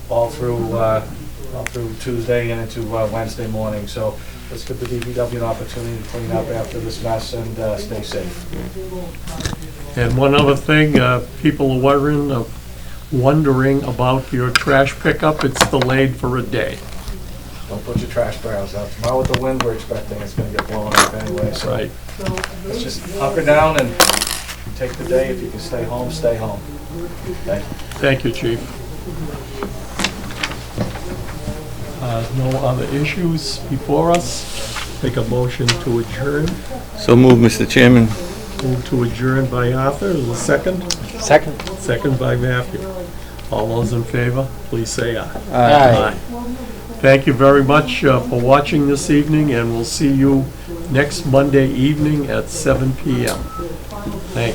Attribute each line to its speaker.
Speaker 1: all through, uh, all through Tuesday and into uh, Wednesday morning. So let's give the DPW an opportunity to clean up after this mess and uh, stay safe.
Speaker 2: And one other thing, uh, people are wondering, uh, wondering about your trash pickup, it's delayed for a day.
Speaker 1: Don't put your trash barrels out. Tomorrow with the wind we're expecting, it's gonna get blown up anyway, so
Speaker 2: Right.
Speaker 1: let's just hunker down and take the day. If you can stay home, stay home. Thank you.
Speaker 2: Thank you, chief. Uh, No other issues before us? Take a motion to adjourn,
Speaker 3: So move, Mr. Chairman.
Speaker 2: move to adjourn by Arthur, is there a second?
Speaker 4: Second.
Speaker 2: Second by Matthew. All those in favor, please say aye.
Speaker 4: Aye.
Speaker 2: Thank you very much uh, for watching this evening, and we'll see you next Monday evening at 7 PM.